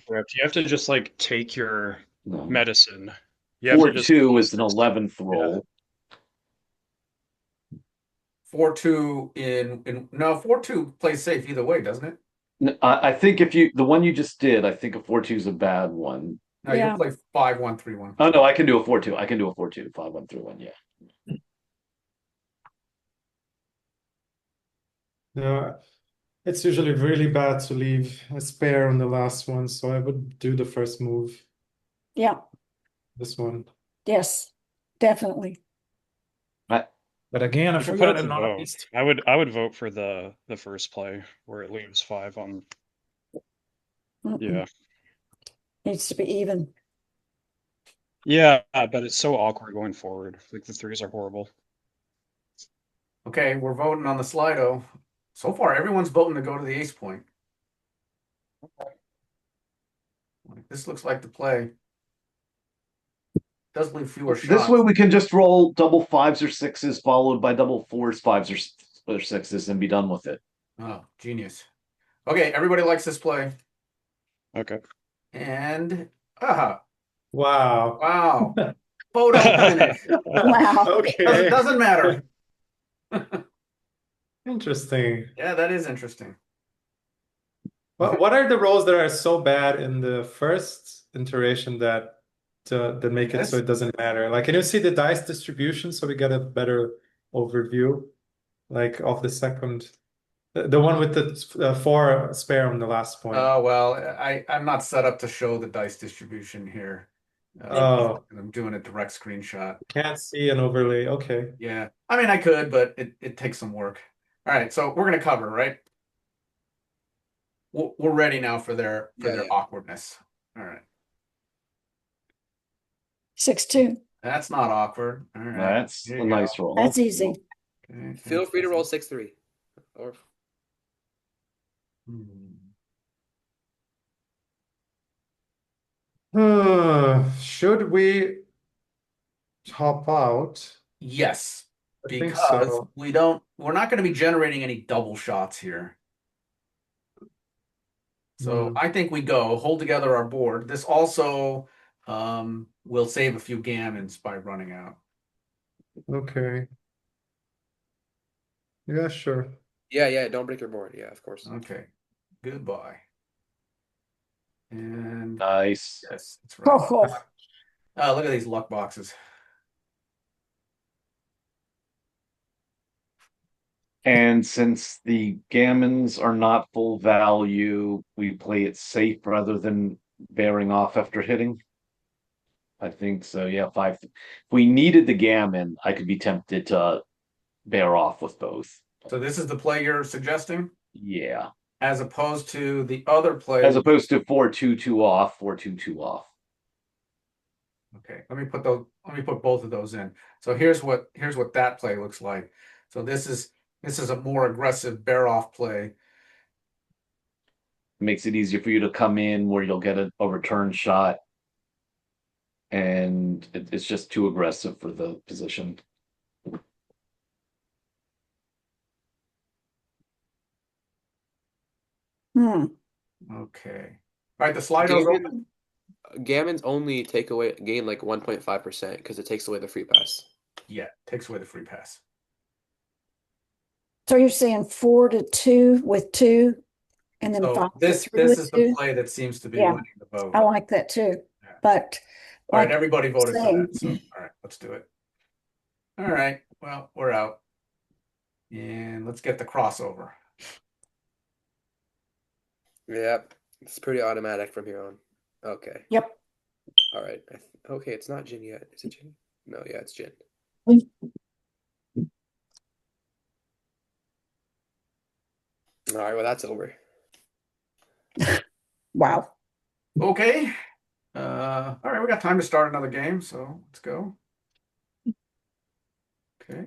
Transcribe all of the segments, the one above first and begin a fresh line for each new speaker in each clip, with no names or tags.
script. You have to just like take your
No.
medicine. You have
Four
to just
two is an eleventh roll.
Four two in in no four two plays safe either way, doesn't it?
N- I, I think if you the one you just did, I think a four two is a bad one.
No, you
Yeah.
can play five one three one.
Oh no, I can do a four two. I can do a four two five one three one. Yeah.
No, it's usually really bad to leave a spare on the last one, so I would do the first move,
Yeah,
this one.
yes, definitely.
But again,
You
if we got
forgot
an
to vote.
honest,
I would I would vote for the the first play where it leaves five on.
Mm-mm.
Yeah,
Mm-hmm.
Needs to be even.
yeah, but it's so awkward going forward. Like the threes are horrible.
Okay, we're voting on the Slido. So far, everyone's voting to go to the ace point. Like, This looks like the play. Does leave fewer
This
shots.
way we can just roll double fives or sixes followed by double fours, fives or, s- or sixes and be done with it.
Oh, genius. Okay, everybody likes this play.
Okay.
And aha,
Wow.
wow. Photo finish.
Wow.
Doesn't,
Okay,
doesn't matter.
interesting.
Yeah, that is interesting.
What what are the roles that are so bad in the first iteration that to, that make it so
Yes.
it doesn't matter? Like, can you see the dice distribution so we get a better overview, like of the second, the, the one with the uh, four spare on the last point?
Oh, well, I, I'm not set up to show the dice distribution here. Uh,
Oh.
I'm doing a direct screenshot.
Can't see an overlay. Okay.
Yeah, I mean, I could, but it, it takes some work. All right, so we're gonna cover, right? We're, we're ready now for their for
Yeah,
their
yeah.
awkwardness. All right,
Six, two.
that's not awkward. All right.
That's
here
a
you go.
nice roll.
That's easy.
Okay,
Feel free to roll
fantastic.
six three, or
Hmm.
Hmm, should we hop out?
Yes,
I think
because
so.
we don't, we're not gonna be generating any double shots here. So
Hmm.
I think we go, hold together our board. This also um will save a few gammons by running out.
Okay. Yeah, sure.
yeah, yeah. Don't break your board. Yeah, of course.
Okay, goodbye. And
Nice.
yes, that's
Ho,
Oh,
right.
ho.
Uh, look at these luck boxes.
And since the gammons are not full value, we play it safe rather than bearing off after hitting. I think so. Yeah, five. If we needed the gammon, I could be tempted to bear off with both.
So this is the play you're suggesting,
Yeah,
as opposed to the other play.
as opposed to four two two off, four two two off.
Okay, let me put those, let me put both of those in. So here's what, here's what that play looks like. So this is, this is a more aggressive bear off play.
makes it easier for you to come in where you'll get a, a return shot. And it, it's just too aggressive for the position.
Hmm.
Okay. All right, the Slido's
Gammon-
open.
Gammons only take away gain like one point five percent because it takes away the free pass.
Yeah, takes away the free pass.
So you're saying four to two with two and then
So
five to
this,
three
this
with
is the
two?
play that seems to be
Yeah.
winning the vote.
I like that too,
Yeah.
but
All right,
like-
everybody voted for
same.
that. So, all right, let's do it. All right, well, we're out. And let's get the crossover.
Yep, it's pretty automatic from here on. Okay.
Yep.
All right. I th- okay, it's not Jin yet. Is it Jin? No, yeah, it's Jin. All right. Well, that's over.
wow.
Okay. Uh, all right, we got time to start another game, so let's go. Okay.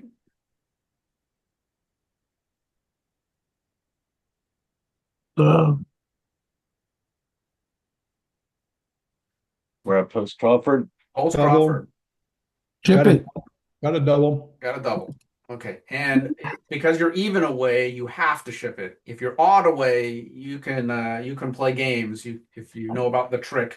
We're at post Crawford.
Holds
Double.
Crawford,
Chip
Got a-
it. Got a double.
got a double. Okay, and because you're even away, you have to ship it. If you're odd away, you can uh, you can play games. You if you know about the trick.